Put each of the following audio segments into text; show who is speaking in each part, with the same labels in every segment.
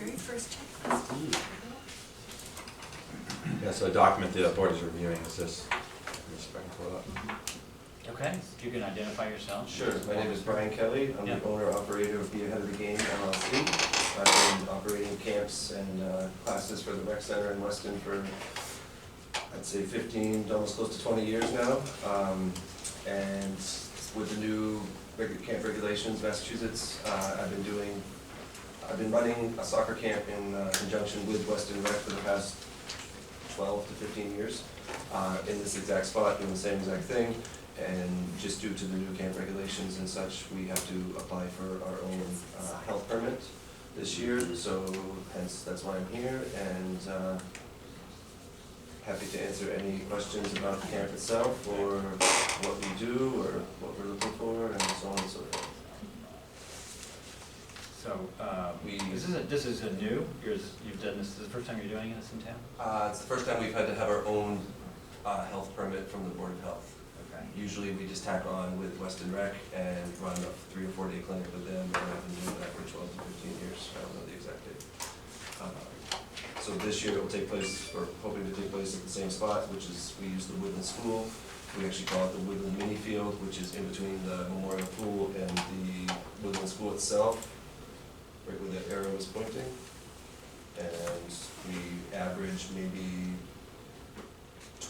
Speaker 1: your first checklist.
Speaker 2: Yeah, so a document the board is reviewing is this. Let me see if I can pull it up.
Speaker 3: Okay, if you can identify yourself.
Speaker 4: Sure, my name is Brian Kelly, I'm
Speaker 3: Yeah.
Speaker 4: the owner operator of Be Ahead of the Game LLC. I've been operating camps and uh, classes for the rec center in Weston for, I'd say fifteen, almost close to twenty years now. Um, And with the new regu- camp regulations, Massachusetts, uh, I've been doing, I've been running a soccer camp in uh, conjunction with Weston Rec for the past twelve to fifteen years, uh, in this exact spot, doing the same exact thing. And just due to the new camp regulations and such, we have to apply for our own uh, health permit this year, so hence, that's why I'm here, and uh, happy to answer any questions about the camp itself, or what we do, or what we're looking for, and so on and so forth.
Speaker 3: So, uh,
Speaker 4: We-
Speaker 3: this is, a- this is a new, yours, you've done this, this is the first time you're doing this in town?
Speaker 4: Uh, It's the first time we've had to have our own uh, health permit from the Board of Health.
Speaker 3: Okay.
Speaker 4: Usually, we just tack on with Weston Rec and run a three or four day clinic with them, and I've been doing that for twelve to fifteen years, I don't know the exact date. Uh, So this year, it will take place, or hoping to take place at the same spot, which is, we use the Woodland School. We actually call it the Woodland Mini Field, which is in between the Memorial Pool and the Woodland School itself, right where the arrow is pointing. And we average maybe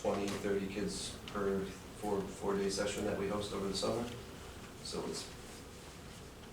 Speaker 4: 20, 30 kids per four, four-day session that we host over the summer. So it's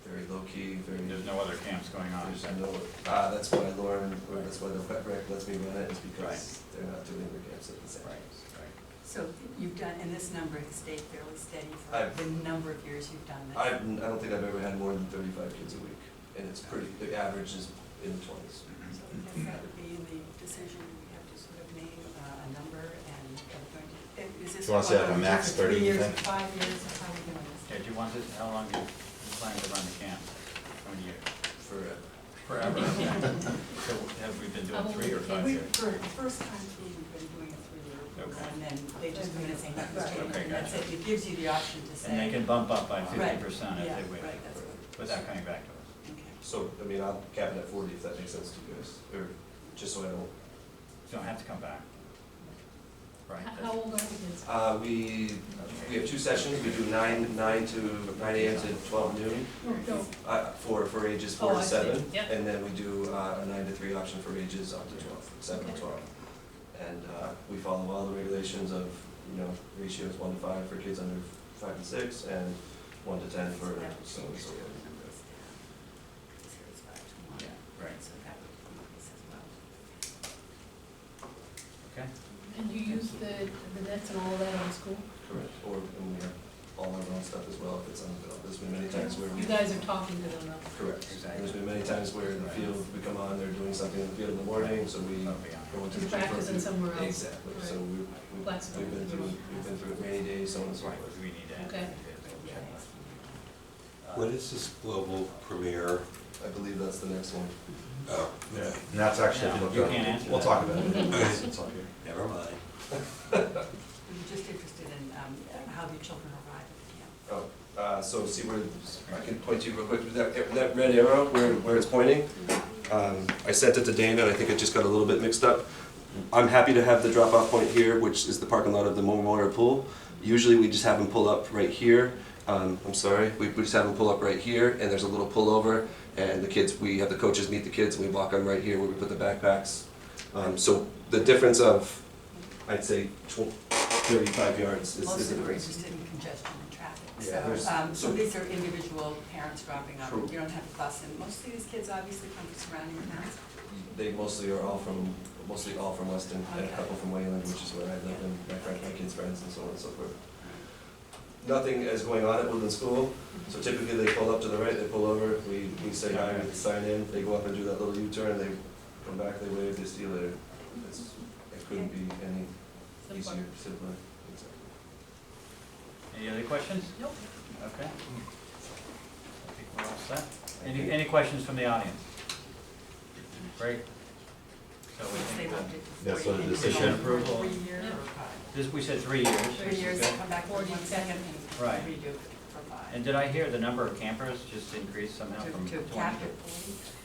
Speaker 4: very low-key, very,
Speaker 3: There's no other camps going on?
Speaker 4: there's no, uh, that's why Lauren, or that's why the wet rec lets me run it, is because they're not doing their camps at the same
Speaker 3: Right,
Speaker 4: time.
Speaker 3: right.
Speaker 1: So you've done, and this number has stayed fairly steady
Speaker 4: I've-
Speaker 1: for the number of years you've done this.
Speaker 4: I've, I don't think I've ever had more than 35 kids a week, and it's pretty, the average is in the 20s.
Speaker 1: So I guess that would be in the decision, we have to sort of name uh, a number and, and going to- is this.
Speaker 2: You wanna say like a
Speaker 1: one
Speaker 2: max
Speaker 1: for three
Speaker 2: 30, you
Speaker 1: years,
Speaker 2: think?
Speaker 1: Five years, or how are we doing this?
Speaker 3: Okay, do you want this, how long do you you plan to run the camp? How many years?
Speaker 4: Forever.
Speaker 3: Forever. okay. So have we been doing three or five
Speaker 1: We-
Speaker 3: years?
Speaker 1: For the first time, we've been doing it through,
Speaker 3: Okay.
Speaker 1: and then they just come in and say, "Here's
Speaker 3: Okay,
Speaker 1: change," and that's it,
Speaker 3: gotcha.
Speaker 1: it gives you the option to say.
Speaker 3: And they can bump up by
Speaker 1: Right,
Speaker 3: fifty percent if they
Speaker 1: Yeah,
Speaker 3: wish,
Speaker 1: right, that's what,
Speaker 3: without coming back to us.
Speaker 1: okay.
Speaker 4: So, I mean, I'll cap it at 40 if that makes sense to you guys, or just so I don't
Speaker 3: You Don't have to come back. Right?
Speaker 5: How-
Speaker 3: that's-
Speaker 5: How old are the kids?
Speaker 4: Uh, we, we have two sessions, we do nine, nine to, nine AM to twelve noon,
Speaker 5: No, no,
Speaker 4: uh, for, for ages four
Speaker 5: Oh,
Speaker 4: to
Speaker 5: I see.
Speaker 4: seven.
Speaker 5: Yeah.
Speaker 4: And then we do, uh, a nine to three option for ages up to twelve, seven to
Speaker 5: Okay.
Speaker 4: twelve. And, uh, we follow all the regulations of, you know, ratios one to five for kids under five and six, and one to ten for so and so. forth.
Speaker 3: Yeah, right,
Speaker 1: So that would be this as well.
Speaker 3: okay.
Speaker 5: And you use the, the nets and all of that on school?
Speaker 4: Correct, or, and we have all our own stuff as well, if it's unavailable, there's been many times where we.
Speaker 5: You guys are talking to them now.
Speaker 4: Correct.
Speaker 3: Exactly.
Speaker 4: There's been many times where in the field, we come on, they're doing something in the field in the morning, so we
Speaker 3: That'll be on.
Speaker 4: go into the.
Speaker 5: You're practicing somewhere else.
Speaker 4: Exactly, so
Speaker 5: Right.
Speaker 4: we, we-
Speaker 5: Flexible.
Speaker 4: we've been through, we've been through it many days, so on and so
Speaker 3: Right,
Speaker 4: forth.
Speaker 3: we need to add
Speaker 5: Okay.
Speaker 3: that.
Speaker 1: Yeah,
Speaker 4: Yeah.
Speaker 3: Uh,
Speaker 6: What is this global premiere?
Speaker 4: I believe that's the next one.
Speaker 6: Oh,
Speaker 2: Yeah,
Speaker 6: okay.
Speaker 2: And that's actually, if you
Speaker 3: No,
Speaker 2: look
Speaker 3: you
Speaker 2: up-
Speaker 3: can't answer
Speaker 2: we'll
Speaker 3: that.
Speaker 2: talk about it.
Speaker 6: Okay.
Speaker 2: It's all here.
Speaker 6: never mind.
Speaker 1: We were just interested in um, how the children arrive at the camp.
Speaker 4: Oh, uh, so see where, I can point to you real quick, with that, with that red arrow where, where it's pointing. Um, I sent it to Dana, and I think it just got a little bit mixed up. I'm happy to have the drop-off point here, which is the parking lot of the Memorial Pool. Usually, we just have them pull up right here, um, I'm sorry, we, we just have them pull up right here, and there's a little pullover, and the kids, we have the coaches meet the kids, and we walk them right here where we put the backpacks. Um, so the difference of, I'd say, tw- thirty-five yards is, is the
Speaker 1: Mostly we're
Speaker 4: difference.
Speaker 1: interested in congestion and traffic.
Speaker 4: Yeah, there's-
Speaker 1: So, um, so
Speaker 4: so-
Speaker 1: these are individual parents dropping off.
Speaker 4: True.
Speaker 1: You don't have a bus, and most of these kids obviously come from surrounding towns.
Speaker 4: They mostly are all from, mostly all from Weston, and a couple from Wayland, which is where I live, and my friend, my kids' friends, and so on and so forth. Nothing is going on at Woodland School, so typically they pull up to the right, they pull over, we, we say hi, we sign in, they go up and do that little U-turn, they come back, they wave, they see you later. It's, it couldn't be any
Speaker 5: Simple.
Speaker 4: easier, simpler, exactly.
Speaker 3: Any other questions?
Speaker 5: Nope.
Speaker 3: Okay.
Speaker 6: Hmm.
Speaker 3: I think we're all set. Any, any questions from the audience? Great. So we
Speaker 1: They
Speaker 3: think that,
Speaker 1: loved it.
Speaker 2: Yeah, so the
Speaker 1: They
Speaker 2: decision
Speaker 1: go for
Speaker 3: approval-
Speaker 1: Three years
Speaker 5: Yeah.
Speaker 1: or five.
Speaker 3: this, we said three years.
Speaker 1: Three years, they
Speaker 3: Okay.
Speaker 1: come back for one
Speaker 5: Forty.
Speaker 1: second
Speaker 3: Right.
Speaker 1: and redo it for five.
Speaker 3: And did I hear the number of campers just increased somehow
Speaker 1: To-
Speaker 3: from
Speaker 1: To
Speaker 3: twenty?
Speaker 1: cap it, forty.